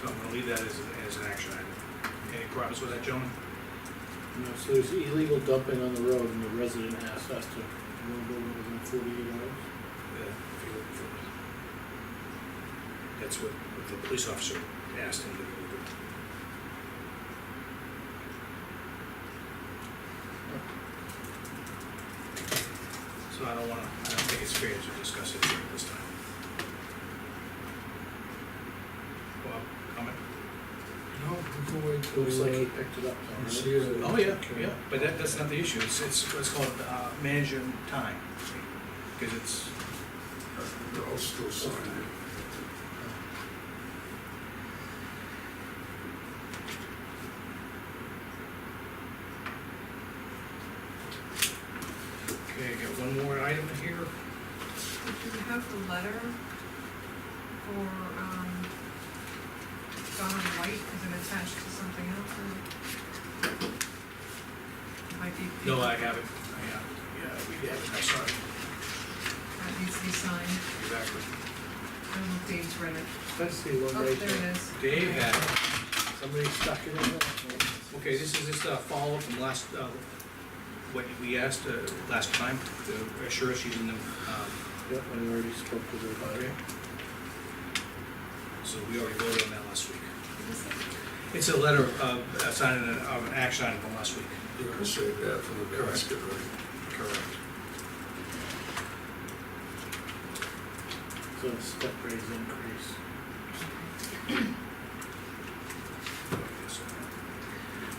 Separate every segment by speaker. Speaker 1: So I'm gonna leave that as, an- as an action item. Any problems with that, gentlemen?
Speaker 2: You know, so there's illegal dumping on the road and the resident asked us to remove it within forty-eight hours.
Speaker 1: Yeah, if you're looking for it. That's what, what the police officer asked him to do. So I don't wanna, I don't think it's fair to discuss it here at this time. Bob, comment?
Speaker 3: No, we can wait till.
Speaker 2: Looks like he
Speaker 3: uh,
Speaker 2: picked it up. though,
Speaker 3: we
Speaker 2: right?
Speaker 3: see it.
Speaker 1: Oh, yeah, yeah, but that, that's not the issue, it's, it's what's called, uh, managing time, because it's,
Speaker 3: I'll still sign it.
Speaker 1: okay, I got one more item here.
Speaker 4: Do you have the letter for, um, Donna White, is it attached to something else, or? Might be.
Speaker 1: No, I haven't, I haven't, yeah, we haven't, I saw it,
Speaker 4: That needs to be signed,
Speaker 1: exactly.
Speaker 4: I don't know if Dave's read it.
Speaker 2: That's the one
Speaker 4: Oh,
Speaker 2: right
Speaker 4: there
Speaker 2: there.
Speaker 4: it is.
Speaker 1: Dave had, it.
Speaker 2: Somebody stuck it in there.
Speaker 1: okay, this is just a follow-up from last, uh, what we asked, uh, last time, to assure us you didn't, um,
Speaker 2: Yep, I already spoke to her about it.
Speaker 1: so we already voted on that last week.
Speaker 4: What is that?
Speaker 1: It's a letter of, uh, signing an, of an action item from last week.
Speaker 3: You're gonna save that for the
Speaker 1: Correct.
Speaker 3: basket, right?
Speaker 1: Correct.
Speaker 2: So the step raise increase.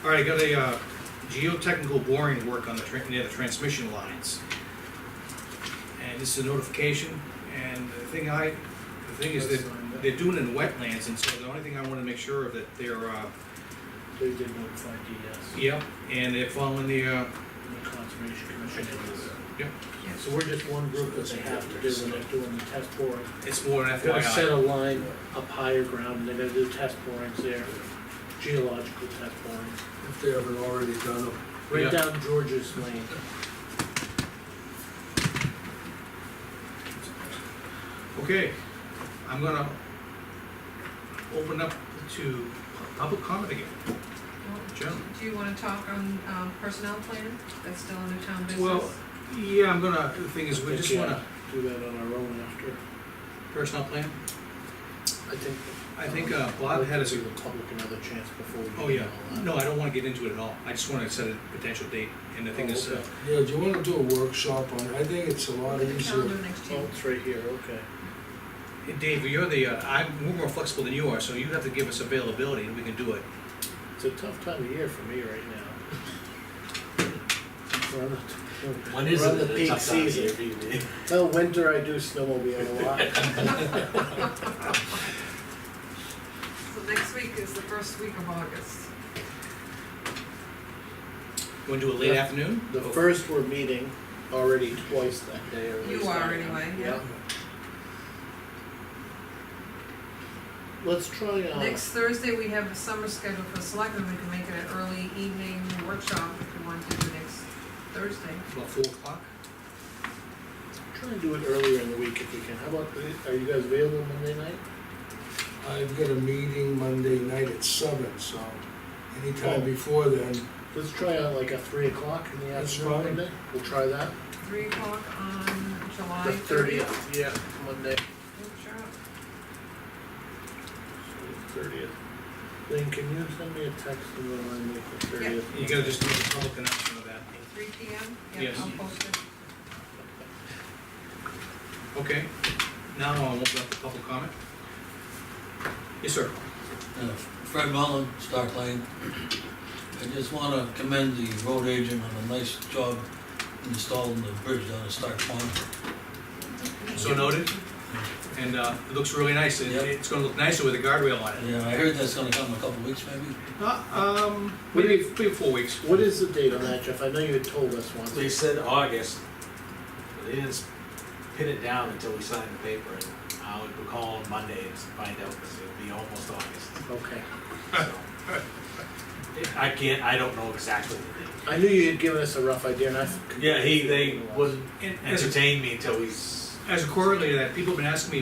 Speaker 1: All right, I got a, uh, geotechnical boring work on the, tran- near the transmission lines. And this is a notification, and the thing I, the thing is that they're doing it in wetlands, and so the only thing I wanna make sure of that they're, uh,
Speaker 2: They did notify DS,
Speaker 1: yep, and they're following the, uh,
Speaker 2: and the Conservation Commission. is-
Speaker 1: yep,
Speaker 4: Yes.
Speaker 2: So we're just one group that they have to do when they're doing the test boring.
Speaker 1: it's more an
Speaker 2: Gotta set
Speaker 1: FYI.
Speaker 2: a line up higher ground, and they're gonna do test borings there, geological test borings,
Speaker 3: If they haven't already done it.
Speaker 1: Yeah.
Speaker 2: right down George's Lane.
Speaker 1: Okay, I'm gonna open up to public comment again.
Speaker 4: Well,
Speaker 1: Gentlemen.
Speaker 4: Do you wanna talk on, um, personnel plan, that's still in the town business?
Speaker 1: Well, yeah, I'm gonna, the thing is,
Speaker 2: I
Speaker 1: we just
Speaker 2: think, yeah,
Speaker 1: wanna,
Speaker 2: Do that on our own after,
Speaker 1: personal plan,
Speaker 2: I think.
Speaker 1: I think, uh, Bob had us,
Speaker 2: Give the public another chance before we.
Speaker 1: oh
Speaker 2: do
Speaker 1: yeah,
Speaker 2: all that.
Speaker 1: no, I don't wanna get into it at all, I just wanna set a potential date, and the thing is, uh,
Speaker 2: Okay.
Speaker 3: Yeah, do you wanna do a workshop on, it? I think it's a lot
Speaker 4: The calendar
Speaker 3: easier.
Speaker 4: next
Speaker 2: Oh,
Speaker 4: year.
Speaker 2: it's right here, okay.
Speaker 1: Dave, you're the, uh, I'm, we're more flexible than you are, so you have to give us availability, and we can do it.
Speaker 2: It's a tough time of year for me right now. We're on the-
Speaker 5: When is
Speaker 2: we're on
Speaker 5: it
Speaker 2: the
Speaker 5: that
Speaker 2: peak
Speaker 5: it's up down
Speaker 2: season.
Speaker 5: here, BB?
Speaker 2: Well, winter I do snowmobile a lot.
Speaker 4: So next week is the first week of August.
Speaker 1: You wanna do it late
Speaker 2: Yeah.
Speaker 1: afternoon?
Speaker 2: The
Speaker 1: Oh,
Speaker 2: first we're meeting already twice that day or at
Speaker 4: You
Speaker 2: least
Speaker 4: are
Speaker 2: I am.
Speaker 4: anyway, yeah.
Speaker 2: Let's try, uh,
Speaker 4: Next Thursday, we have a summer schedule for selectmen, we can make it an early evening workshop if you want to do it next Thursday.
Speaker 1: About four o'clock?
Speaker 2: try and do it earlier in the week if we can. How about, the- are you guys available Monday night?
Speaker 3: I've got a meeting Monday night at seven, so anytime
Speaker 2: Oh.
Speaker 3: before then,
Speaker 2: Let's try out like a three o'clock in the
Speaker 3: That's
Speaker 2: afternoon
Speaker 3: fine.
Speaker 2: Monday. We'll try that.
Speaker 4: Three o'clock on July
Speaker 2: The
Speaker 4: thirtieth.
Speaker 2: thirtieth, yeah, Monday.
Speaker 4: Workshop.
Speaker 2: Thirtieth. Lynn, can you send me a text and remind me for
Speaker 4: Yeah.
Speaker 2: thirtieth?
Speaker 1: You gotta just do a public announcement of that.
Speaker 4: Three P M?
Speaker 1: Yes.
Speaker 4: I'll post it.
Speaker 1: Okay, now I'll open up the public comment. Yes, sir.
Speaker 6: Uh, Fred Mullin, Stark Lane. I just wanna commend the road agent on a nice job installing the bridge down at Stark Pond.
Speaker 1: So noted, and, uh, it looks really nice, and
Speaker 6: Yep.
Speaker 1: it's gonna look nicer with a guardrail on it.
Speaker 6: Yeah, I heard that's gonna come in a couple weeks maybe.
Speaker 1: Uh, um, maybe, maybe four weeks.
Speaker 2: What is the date on that, Jeff? I know you had told us once.
Speaker 5: They said August, but they didn't pin it down until we signed the paper. And I would call on Monday and find out, because it'll be almost August,
Speaker 2: Okay.
Speaker 5: so. I can't, I don't know exactly the date.
Speaker 2: I knew you had given us a rough idea and I.
Speaker 5: Yeah, he, they wouldn't
Speaker 1: And as a,
Speaker 5: entertain me until we s-
Speaker 1: as a corollary to that, people have been asking me